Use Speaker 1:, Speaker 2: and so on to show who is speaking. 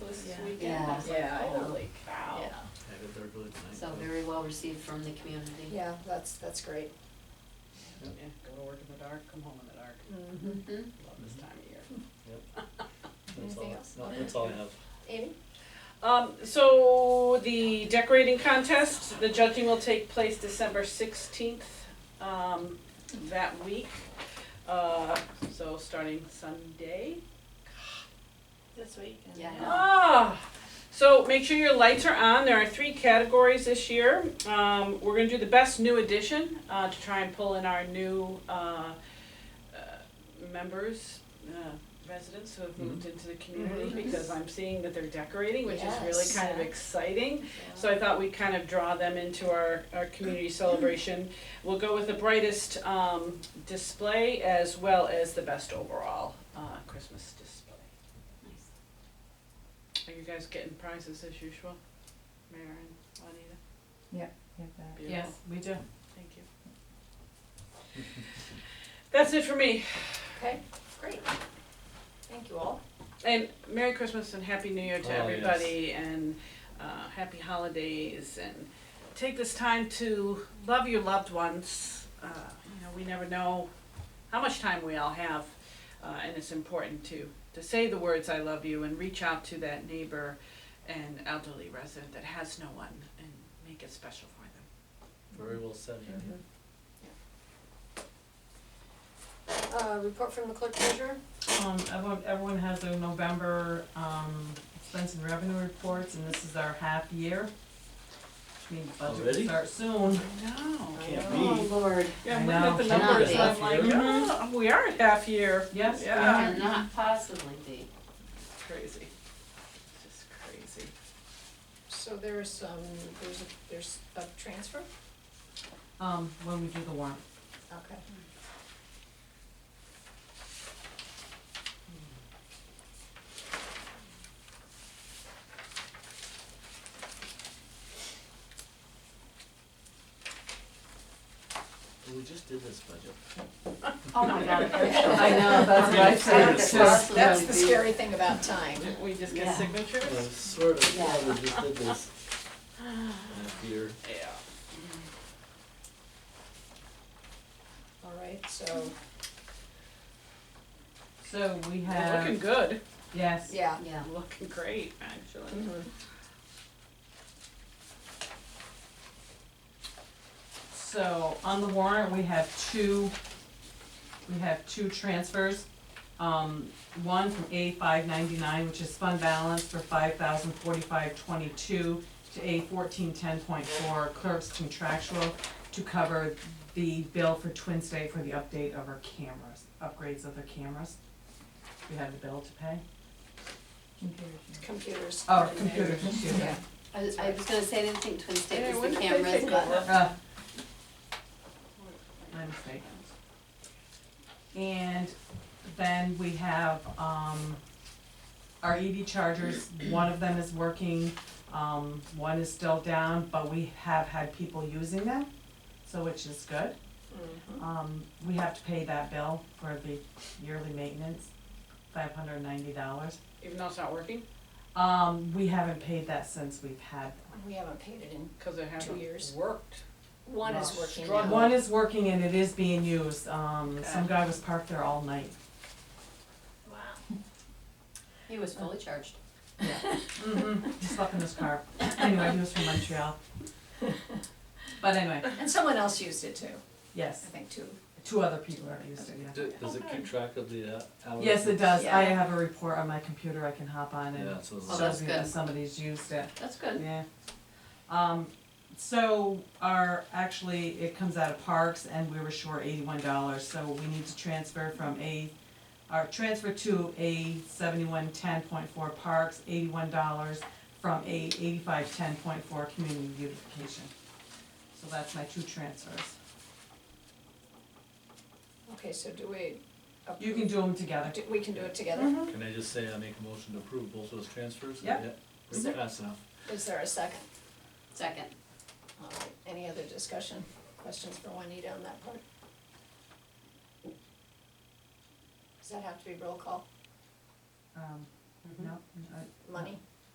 Speaker 1: weekend, I was like,
Speaker 2: Yeah. Yeah, I know.
Speaker 1: holy cow.
Speaker 2: Yeah.
Speaker 3: Had it there really tonight.
Speaker 1: So very well received from the community.
Speaker 2: Yeah, that's, that's great.
Speaker 1: Yeah.
Speaker 4: Go to work in the dark, come home in the dark.
Speaker 2: Mm. Mm-hmm.
Speaker 1: Mhm.
Speaker 4: Love this time of year.
Speaker 3: Yep. That's
Speaker 2: Anything
Speaker 3: all-
Speaker 2: else?
Speaker 3: No, that's all I have.
Speaker 2: Amy?
Speaker 5: Um, so the decorating contest, the judging will take place December sixteenth, um, that week. Uh, so starting Sunday.
Speaker 6: This week. and-
Speaker 1: Yeah.
Speaker 5: Ah, so make sure your lights are on. There are three categories this year. Um, we're gonna do the best new addition, uh, to try and pull in our new, uh, uh, members, uh, residents who have moved into the community,
Speaker 2: Mhm.
Speaker 5: because I'm seeing that they're decorating, which is really
Speaker 2: Yes.
Speaker 5: kind of exciting. So I thought we'd kind of draw them into our, our community celebration. We'll go with the brightest, um, display as well as the best overall, uh, Christmas display.
Speaker 1: Nice.
Speaker 5: Are you guys getting prizes as usual? Mayor and Juanita?
Speaker 6: Yes, we do.
Speaker 5: Thank you. That's it for me.
Speaker 2: Okay, great. Thank you all.
Speaker 5: And Merry Christmas and Happy New Year
Speaker 3: Oh,
Speaker 5: to
Speaker 3: yes.
Speaker 5: everybody and uh, happy holidays and take this time to love your loved ones. Uh, you know, we never know how much time we all have, uh, and it's important to to say the words "I love you" and reach out to that neighbor and elderly resident that has no one and make it special for them.
Speaker 3: Very well said.
Speaker 2: Mm-hmm. Uh, report from the clerk treasurer?
Speaker 6: Um, everyone, everyone has their November, um, expense and revenue reports, and this is our half year. Which means budget
Speaker 3: Already?
Speaker 6: will start soon.
Speaker 5: No.
Speaker 3: Can't
Speaker 1: Oh,
Speaker 3: be.
Speaker 1: Lord.
Speaker 5: Yeah,
Speaker 6: I
Speaker 5: I'm looking at the
Speaker 1: know. Cannot
Speaker 5: numbers,
Speaker 1: be.
Speaker 5: and I'm like,
Speaker 6: Mhm.
Speaker 5: "Ah, we are at half year.
Speaker 6: Yes, we
Speaker 5: Oh, Yeah.
Speaker 6: are.
Speaker 1: Cannot possibly be.
Speaker 5: It's crazy. It's just crazy.
Speaker 2: So there's, um, there's, a- there's a transfer?
Speaker 6: Um, when we do the warrant.
Speaker 2: Okay.
Speaker 3: We just did this budget.
Speaker 1: Oh, my God.
Speaker 2: I
Speaker 6: know, that's
Speaker 3: what I said.
Speaker 1: How could
Speaker 3: It's
Speaker 1: it
Speaker 3: just-
Speaker 1: possibly
Speaker 2: That's the
Speaker 1: be?
Speaker 2: scary thing about time.
Speaker 5: We just
Speaker 1: Yeah.
Speaker 5: get
Speaker 3: Uh,
Speaker 5: signatures?
Speaker 3: Sort of, yeah,
Speaker 1: Yeah.
Speaker 3: we just did this. Half year.
Speaker 5: Yeah.
Speaker 2: All right, so,
Speaker 6: So we
Speaker 5: We're Looking
Speaker 6: have,
Speaker 5: good.
Speaker 6: yes,
Speaker 2: yeah.
Speaker 1: Yeah.
Speaker 5: Looking great, actually.
Speaker 2: Mhm.
Speaker 6: so on the warrant, we have two, we have two transfers. Um, one from A five ninety-nine, which is fund balance for five thousand forty-five twenty-two to A fourteen ten point four clerk's contractual to cover the bill for Twin State for the update of our cameras, upgrades of their cameras. We have the bill to pay.
Speaker 2: Computers.
Speaker 6: Oh, computer, excuse me.
Speaker 2: Yeah.
Speaker 1: I was, I was gonna say, I didn't think Twin
Speaker 5: Yeah,
Speaker 1: State was
Speaker 5: when
Speaker 1: the
Speaker 5: did they
Speaker 1: cameras,
Speaker 5: take
Speaker 1: but
Speaker 5: over?
Speaker 6: Uh, my mistake. And then we have, um, our EV chargers, one of them is working, um, one is still down, but we have had people using them, so which is good.
Speaker 2: Mhm.
Speaker 6: Um, we have to pay that bill for the yearly maintenance, five hundred and ninety dollars.
Speaker 5: Even though it's not working,
Speaker 6: Um, we haven't paid that since we've had them.
Speaker 2: We haven't paid it in,
Speaker 5: cause it hasn't
Speaker 2: years.
Speaker 5: worked.
Speaker 2: one is
Speaker 6: Well,
Speaker 2: working
Speaker 5: strong
Speaker 2: now.
Speaker 6: One is working and it is being used, um, some guy was parked there all night.
Speaker 1: he was fully charged.
Speaker 6: Mm-hmm, he slept in his car. Anyway, he was from Montreal. But anyway,
Speaker 2: And someone else used it too, I
Speaker 6: yes,
Speaker 2: think two.
Speaker 6: two other people are used to it.
Speaker 3: Do- Does it keep track of the uh, hours?
Speaker 6: Yes, it does. I
Speaker 2: Yeah.
Speaker 6: have a report on my computer I can hop on and
Speaker 3: Yeah,
Speaker 6: it
Speaker 3: so
Speaker 1: Oh,
Speaker 3: it's,
Speaker 1: that's
Speaker 6: shows me that
Speaker 1: good.
Speaker 6: somebody's used it.
Speaker 1: That's good.
Speaker 6: Yeah. Um, so our, actually, it comes out of parks and we were short eighty-one dollars, so we need to transfer from a, our transfer to a seventy-one ten point four parks, eighty-one dollars from a eighty-five ten point four community beautification. So that's my two transfers.
Speaker 2: Okay, so do we? uh,
Speaker 6: You can do them together.
Speaker 2: do. We can do it together.
Speaker 6: Mhm.
Speaker 3: can I just say I make a motion to approve both those transfers?
Speaker 6: Yep.
Speaker 2: Is
Speaker 3: Pretty fast now.
Speaker 2: Is there a second?
Speaker 1: Second.
Speaker 2: All right, any other discussion, questions for Juanita on that part? Does that have to be roll call,
Speaker 6: Um, no, I-
Speaker 2: money?